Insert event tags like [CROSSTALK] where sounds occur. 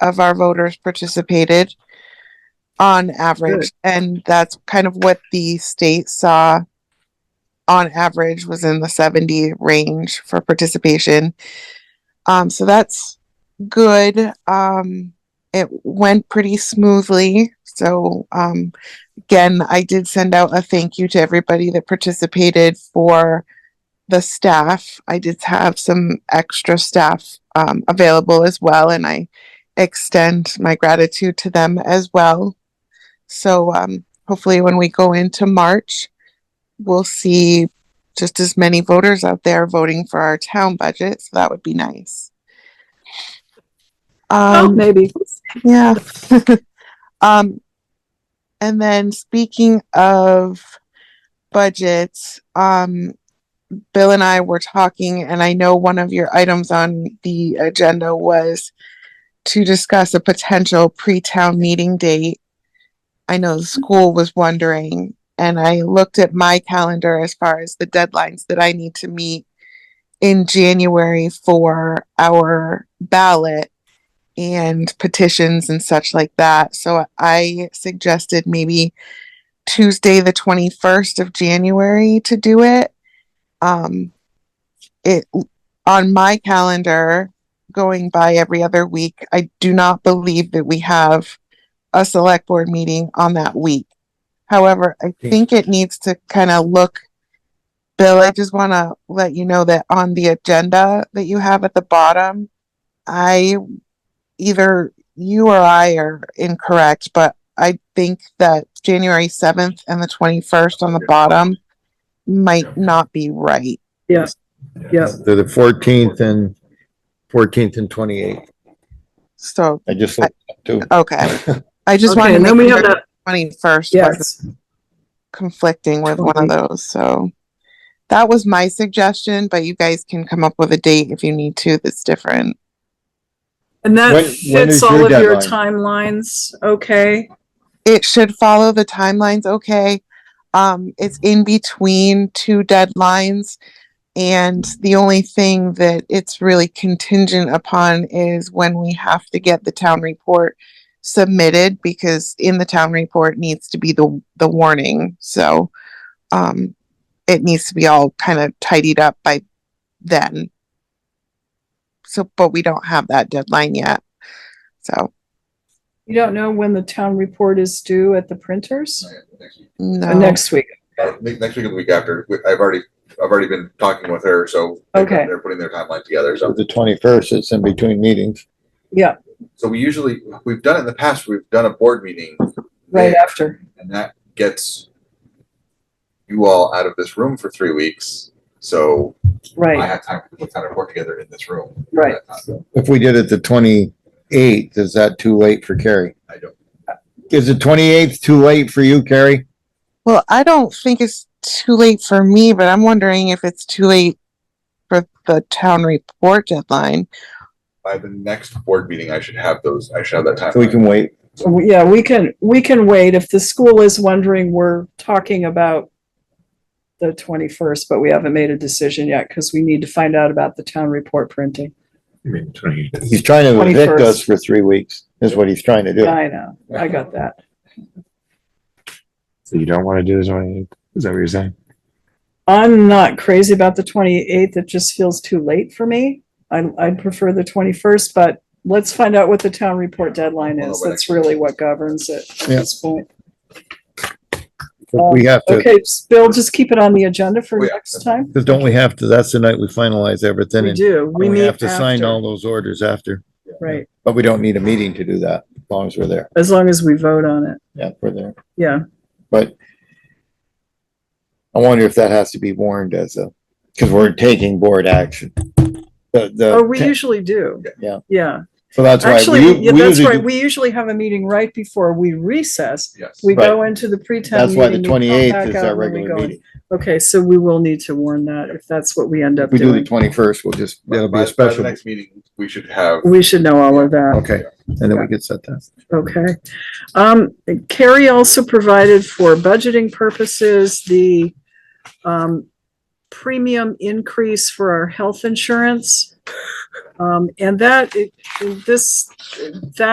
of our voters participated on average. And that's kind of what the state saw on average was in the 70 range for participation. Um, so that's good. Um, it went pretty smoothly. So, um, again, I did send out a thank you to everybody that participated for the staff. I did have some extra staff um, available as well, and I extend my gratitude to them as well. So, um, hopefully, when we go into March, we'll see just as many voters out there voting for our town budget. So, that would be nice. Oh, Um, maybe. yeah. [LAUGHS] um, and then speaking of budgets, um, Bill and I were talking, and I know one of your items on the agenda was to discuss a potential pre-town meeting date. I know the school was wondering, and I looked at my calendar as far as the deadlines that I need to meet in January for our ballot and petitions and such like that. So I suggested maybe Tuesday, the 21st of January to do it. Um, it on my calendar going by every other week. I do not believe that we have a select board meeting on that week. However, I Hmm. think it needs to kind of look Bill, I just want to let you know that on the agenda that you have at the bottom, I either you or I are incorrect, but I think that January 7th and the 21st on the bottom might not be right. Yes. Yes. They're the fourteenth and, fourteenth and twenty-eighth. So, I just looked up too. okay. I just Okay, wanted and to then make we have sure that, 21st wasn't yes. conflicting with one of those. So that was my suggestion, but you guys can come up with a date if you need to that's different. And that When- when fits is all your of your deadline? timelines, okay? It should follow the timelines. Okay. Um, it's in between two deadlines. And the only thing that it's really contingent upon is when we have to get the town report submitted because in the town report needs to be the, the warning. So, um, it needs to be all kind of tidied up by then. So, but we don't have that deadline yet. So, You don't know when the town report is due at the printers? Next week, Uh, no. Next week, uh, ne- next week or the week after. We- I've already, I've already been talking with her, so. they're- Okay. They're putting their timeline together, So so. the twenty-first, it's in between meetings. yeah, So we usually, we've done it in the past, we've done a board meeting. right there, after. And that gets you all out of this room for three weeks, so I Right, have time to put kind of work together in this room. Uh, right. If we did it the twenty-eighth, is that too late for Carrie? I don't, Is the twenty-eighth too late for you, Carrie? Well, I don't think it's too late for me, but I'm wondering if it's too late for the town report deadline. by the next board meeting, I should have those, I should have that time. So we can wait. So, Yeah, we can, we can wait. If the school is wondering, we're talking about the twenty-first, but we haven't made a decision yet because we need to find out about the town report printing. He's trying to evict 21st. us for three weeks, is what he's trying to do. Yeah, I know. I got that. So you don't want to do the 28th? Is that what you're saying? I'm not crazy about the 28th. It just feels too late for me. I, I'd prefer the 21st, but let's find out what the town report deadline is. That's really what governs it at Yeah. this point. We have to, Okay, s- Bill, just keep it on the agenda for Oh, yeah. next time. because don't we have to, that's the night we finalize everything. We and do. We We meet have to sign all after, those orders after, right? but we don't need a meeting to do that, as long as we're there. As long as we vote on it. Yeah, we're there. Yeah. But I wonder if that has to be warned as a, because we're taking board action. The, Oh, we the, usually do. Uh, Yeah. Yeah. so that's why. we- Actually, yeah, we that's usually right. do- We usually have a meeting right before we recess. Yes. We Right. go into the pre-town That's meeting. why the we come back twenty-eighth is out, our and then we regular go in. meeting. Okay, so we will need to warn that if that's what we end up If we do the doing. twenty-first, we'll just, By- it'll be by a the- by the special, Next meeting, we should have. We should know all of that, okay, and then we could set that. okay. Um, Carrie also provided for budgeting purposes, the um, premium increase for our health insurance. Um, and that, it- this, that